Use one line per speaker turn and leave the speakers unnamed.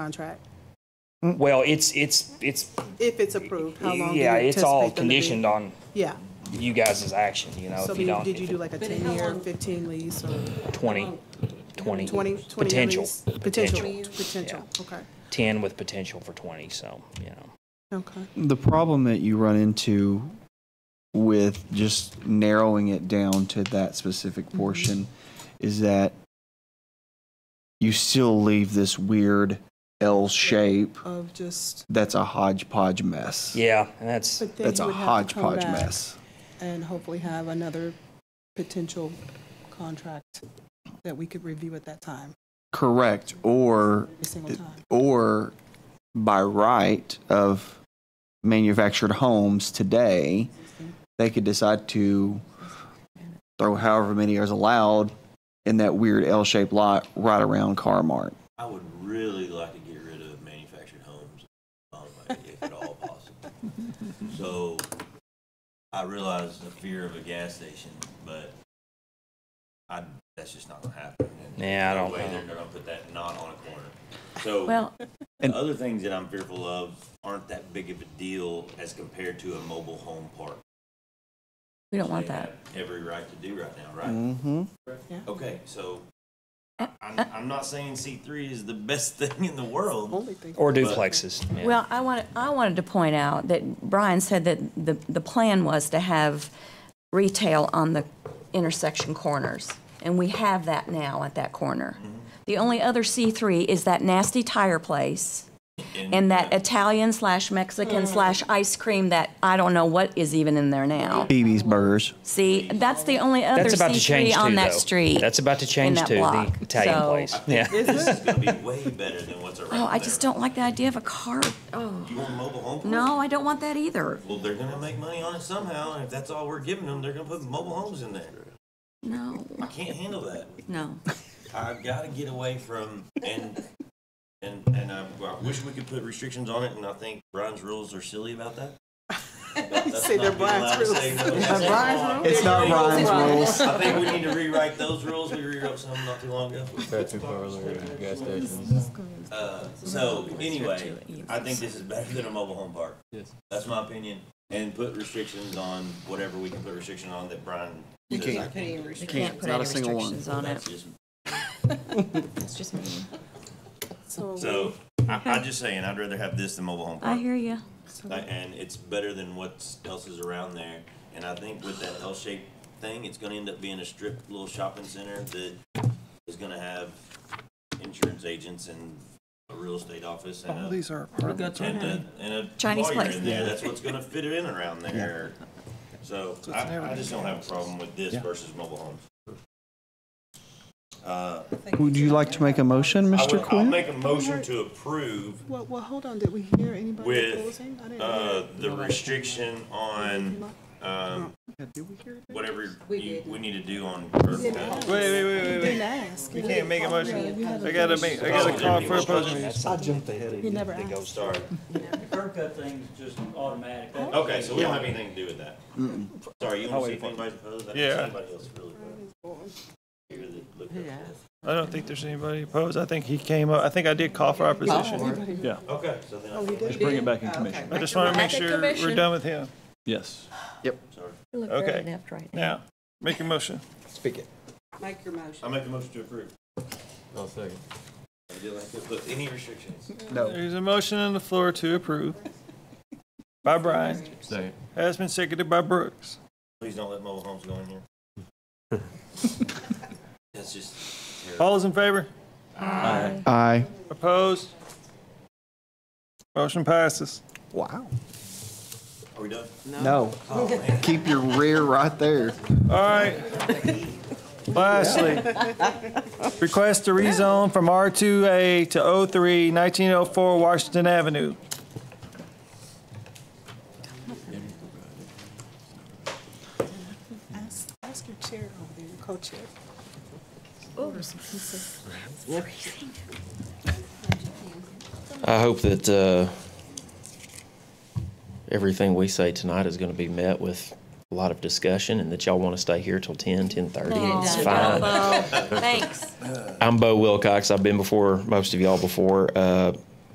contract?
Well, it's, it's, it's,
If it's approved, how long do you
yeah, it's all
anticipate them to be?
conditioned on
Yeah,
you guys' action, you know,
so
if
do
you
you-
don't.
did you
if
do like a
But how
ten-year,
long-
fifteen lease or
20, 20.
20 20 year
Potential.
lease? Potential,
Potential.
potential, okay,
10 with potential for 20, so, you know.
okay.
The problem that you run into with just narrowing it down to that specific
Mm-hmm.
portion is that you still leave this weird L shape
Of just,
that's a hodgepodge mess.
Yeah, and that's,
but then
That's
you
a
would have to come
hodgepodge
back
mess.
and hopefully have another potential contract that we could review at that time,
Correct. Or
every single time.
or by right of manufactured homes today, they could decide to throw however many is allowed in that weird L-shaped lot right around Car Mart.
I would really like to get rid of manufactured homes, um, if at all possible. So I realize the fear of a gas station, but I, that's just not gonna happen. And
Yeah, I
no
don't
way
know.
They're gonna put that knot on a corner. So
Well,
the other things that I'm fearful of aren't that big of a deal as compared to a mobile home park.
we don't want
They
that.
have Every right to do right now, right?
Mm-hmm.
Okay, so
Uh,
I, I'm, I'm not saying C three is the best thing in the world.
Only thing,
or duplexes. yeah.
Well, I wanted, I wanted to point out that Brian said that the, the plan was to have retail on the intersection corners, and we have that now at that corner.
Mm-hmm.
The only other C3 is that nasty tire place and that
Mm-hmm.
Italian slash Mexican slash ice cream that I don't know what is even in there now.
BB's Burgers.
See, that's the only other
That's about to change
C3
too,
on that
though.
street.
That's about to change
that
too, the
block.
Italian
So-
place, yeah.
This is gonna be way better than what's around
Oh, I just
there.
don't like the idea of a car, oh,
You want mobile home? parks?
no, I don't want that either.
Well, they're gonna make money on it somehow, and if that's all we're giving them, they're gonna put mobile homes in there.
No,
I can't handle that.
no.
I've gotta get away from, and, and, and I, well, I wish we could put restrictions on it, and I think Brian's rules are silly about that.
you say they're Brian's rules.
Brian's
It's not Ryan's rules.
I think we need to rewrite those rules. We rewrote some not too long ago. Uh, so anyway, I think this is better than a mobile home park. Yes. That's my opinion. And put restrictions on whatever we can put restrictions on that Brian
You
says I
can't.
can.
You
can't, not a single one.
on
That's just-
It's just me.
so,
So I, I'm just saying, I'd rather have this than mobile home
I
park.
hear you.
Like,
Mm-hmm.
And it's better than what else is around there. And I think with that L-shaped thing, it's gonna end up being a strip little shopping center that is gonna have insurance agents and a real estate office and a
These are apartments.
And a, and a
Chinese
lawyer
place.
in there, that's what's gonna fit it in around there. So I, I just don't have a problem with this versus mobile homes. Uh,
Would you like to make a motion,
I
Mr.
would, I'll
Quinn?
make a motion to approve,
well, well, hold on, did we hear anybody
With,
opposing? I didn't
uh,
hear.
the restriction on, um, whatever you, we need to do on. Wait,
Wait, wait, wait, wait,
Didn't ask.
wait. Can't make a motion. I gotta make, I
Oh,
gotta call for a
yeah.
post meeting.
He never asked.
Sorry,
curb cut thing's just automatic. That-
okay, so we don't have anything to do with that. Sorry, you wanna see if anybody's opposed? I didn't see
Yeah.
anybody else really. Here, look up this.
I don't think there's anybody opposed. I think he came up, I think I did call for opposition.
Okay, so then I.
Bring it
Oh,
back in commission.
I just wanna make sure we're done with him.
Yes.
Okay, now, make a motion.
Speak it.
Make your motion.
I make a motion to approve. I'll second. But any restrictions?
There's a motion on the floor to approve by Brian.
Second.
Has been seconded by Brooks.
Please don't let mobile homes go in here. That's just terrible.
All is in favor?
Aye.
Opposed? Motion passes.
Wow.
Are we done?
No. Keep your rear right there.
All right. Lastly, request to rezone from R2A to O3, 1904 Washington Avenue.
Ask, ask your chair over there, your co-chair.
I hope that uh, everything we say tonight is going to be met with
a lot of discussion and that y'all want to stay here till 10, 10.30. It's
Thanks,
fine.
Bobo. Thanks.
I'm Bo Wilcox. I've been before most of y'all before. Uh,